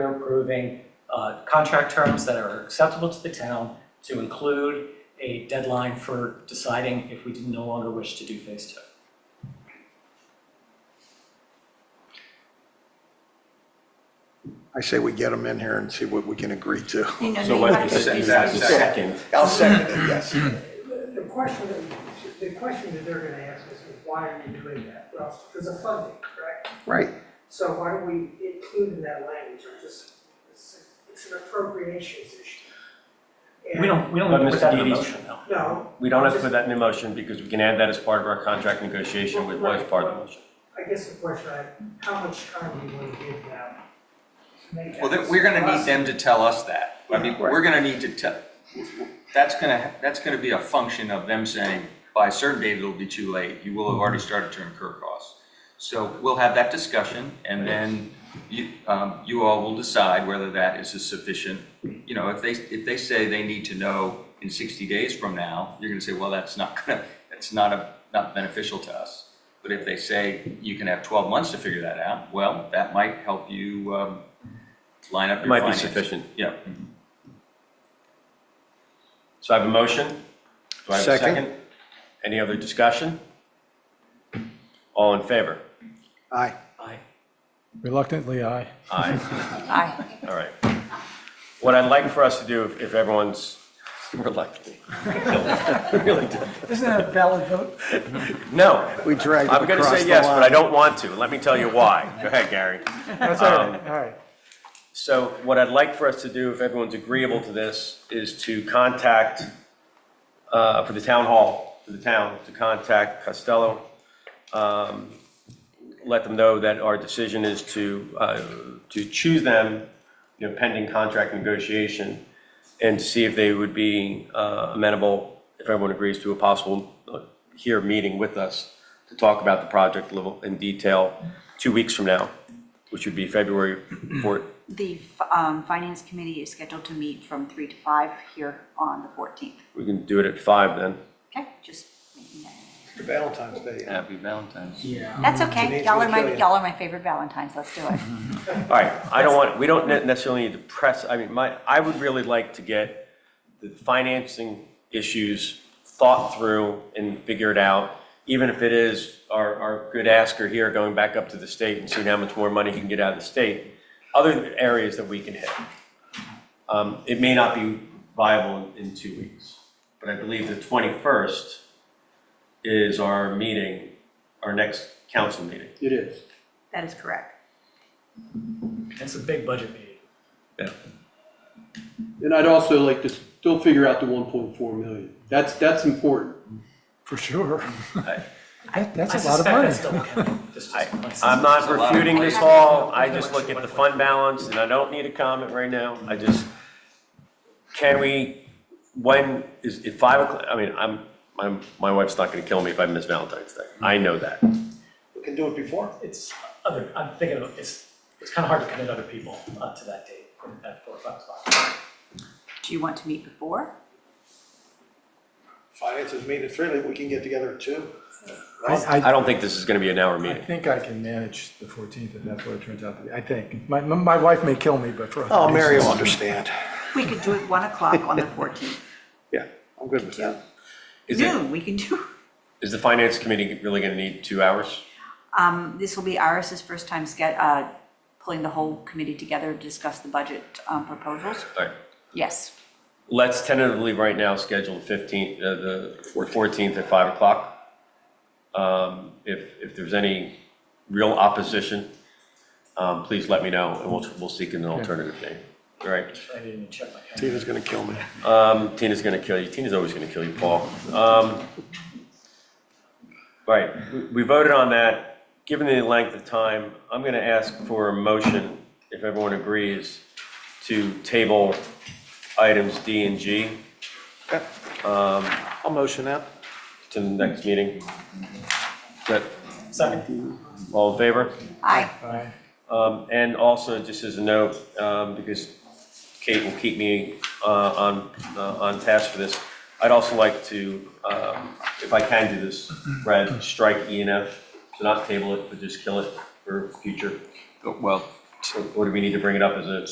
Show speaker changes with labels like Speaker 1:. Speaker 1: We're approving uh, contract terms that are acceptable to the town to include a deadline for deciding if we did no longer wish to do phase two.
Speaker 2: I say we get them in here and see what we can agree to.
Speaker 3: You know,
Speaker 4: So
Speaker 3: you
Speaker 4: what,
Speaker 3: have
Speaker 4: is
Speaker 3: to-
Speaker 4: it- is that the second?
Speaker 2: I'll second it, yes.
Speaker 5: The question, that- the question that they're gonna ask us is, why are you doing that? Well, because of funding, correct?
Speaker 2: Right.
Speaker 5: So why don't we include in that language, or just, it's it's an appropriations issue.
Speaker 1: We don't, we don't
Speaker 4: But
Speaker 1: put
Speaker 4: Mr.
Speaker 1: that in a
Speaker 4: Dede's-
Speaker 1: motion, though.
Speaker 5: And- No,
Speaker 4: We don't have to put that in the motion because we can add that as part of our contract negotiation with was part of the motion.
Speaker 5: I guess the question I, how much time do you wanna give them? to make that
Speaker 6: Well, then we're gonna need
Speaker 5: decision?
Speaker 6: them to tell us that. I mean, we're gonna need to tell, that's gonna, that's gonna be a function of them saying, by a certain date, it'll be too late, you will have already started to incur costs. So we'll have that discussion, and then you, um, you all will decide whether that is a sufficient, you know, if they, if they say they need to know in sixty days from now, you're gonna say, well, that's not gonna, that's not a, not beneficial to us. But if they say you can have twelve months to figure that out, well, that might help you, um, line up
Speaker 4: It
Speaker 6: your
Speaker 4: might be
Speaker 6: finances.
Speaker 4: sufficient.
Speaker 6: Yeah.
Speaker 4: So I have a motion. Do I have a
Speaker 2: Second.
Speaker 4: second? Any other discussion? All in favor?
Speaker 2: Aye.
Speaker 1: I,
Speaker 7: Reluctantly, aye.
Speaker 4: Aye.
Speaker 3: Aye.
Speaker 4: All right. What I'd like for us to do, if if everyone's reluctant, really do.
Speaker 7: Isn't that a valid vote?
Speaker 4: No,
Speaker 2: We dragged them
Speaker 4: I'm going to
Speaker 2: across
Speaker 4: say
Speaker 2: the
Speaker 4: yes, but I
Speaker 2: line.
Speaker 4: don't want to. Let me tell you why. Go ahead, Gary.
Speaker 7: That's all right, all right.
Speaker 4: So what I'd like for us to do, if everyone's agreeable to this, is to contact, uh, for the town hall, for the town, to contact Costello. um, Let them know that our decision is to, uh, to choose them, you know, pending contract negotiation, and to see if they would be uh, amenable, if everyone agrees, to a possible uh, here meeting with us to talk about the project level in detail two weeks from now, which would be February 4th,
Speaker 3: The f- um, Finance Committee is scheduled to meet from 3 to 5 here on the 14th.
Speaker 4: We can do it at five then.
Speaker 3: Okay, just, making that-
Speaker 2: Valentine's Day. yeah.
Speaker 6: Happy Valentine's.
Speaker 3: that's
Speaker 2: Today's
Speaker 3: okay. Y'all are
Speaker 2: gonna kill
Speaker 3: my,
Speaker 2: you.
Speaker 3: y'all are my favorite Valentines, let's do it.
Speaker 4: All right, I don't want, we don't ne- necessarily need to press, I mean, my, I would really like to get the financing issues thought through and figured out, even if it is our, our good asker here going back up to the state and seeing how much more money he can get out of the state, other areas that we can hit. Um, It may not be viable in in two weeks, but I believe the 21st is our meeting, our next council meeting.
Speaker 2: It is.
Speaker 3: That is correct.
Speaker 1: it's a big budget meeting.
Speaker 8: And I'd also like to still figure out the one point four million. That's, that's important.
Speaker 7: For sure. That-
Speaker 1: I
Speaker 7: That's a lot of
Speaker 1: suspect
Speaker 7: money.
Speaker 1: that's double counting, just-
Speaker 4: I-
Speaker 1: just-
Speaker 4: I'm not
Speaker 6: lot of
Speaker 4: refuting
Speaker 6: money.
Speaker 4: this all, I just look at the fund balance, and I don't need a comment right now, I just, can we, when, is, if five o'clock, I mean, I'm, I'm, my wife's not gonna kill me if I miss Valentine's Day, I know that.
Speaker 2: We can do it before.
Speaker 1: It's other, I'm thinking of, it's, it's kind of hard to commit other people uh, to that date, at four or five o'clock.
Speaker 3: Do you want to meet before?
Speaker 2: Finance is meeting at three, like, we can get together at two.
Speaker 7: I,
Speaker 4: I
Speaker 7: I-
Speaker 4: don't think this is gonna be an hour
Speaker 7: I
Speaker 4: meeting.
Speaker 7: think I can manage the 14th if that's what it turns out to be. I think. My, my my wife may kill me, but for other
Speaker 2: Oh, Mary will
Speaker 7: reasons.
Speaker 2: understand.
Speaker 3: We could do it 1 o'clock on the 14th.
Speaker 2: Yeah, I'm good with that.
Speaker 4: Is it,
Speaker 3: Noon, we can do.
Speaker 4: is the finance committee really gonna need two hours?
Speaker 3: Um, This will be Iris's first time sca- uh, pulling the whole committee together to discuss the budget um, proposals.
Speaker 4: All right,
Speaker 3: Yes,
Speaker 4: let's tentatively right now schedule the fifteenth, uh, the fourteenth at five o'clock. Um, if, if there's any real opposition, um, please let me know and we'll, we'll seek an alternative name. All right,
Speaker 1: I didn't even check my calendar.
Speaker 2: Tina's gonna kill me.
Speaker 4: um, Tina's gonna kill you, Tina's always gonna kill you, Paul. Um, right, we- we voted on that, given the length of time, I'm gonna ask for a motion, if everyone agrees, to table items D and G. Um,
Speaker 2: I'll motion that.
Speaker 4: to the next meeting. That,
Speaker 1: Second,
Speaker 4: all in favor?
Speaker 3: aye.
Speaker 7: Aye.
Speaker 4: Um, and also, just as a note, um, because Kate will keep me, uh, on, uh, on task for this, I'd also like to, um, if I can do this, Brad, strike E and F, to not table it, but just kill it for future.
Speaker 6: Well,
Speaker 4: Or or do we need to bring it up as a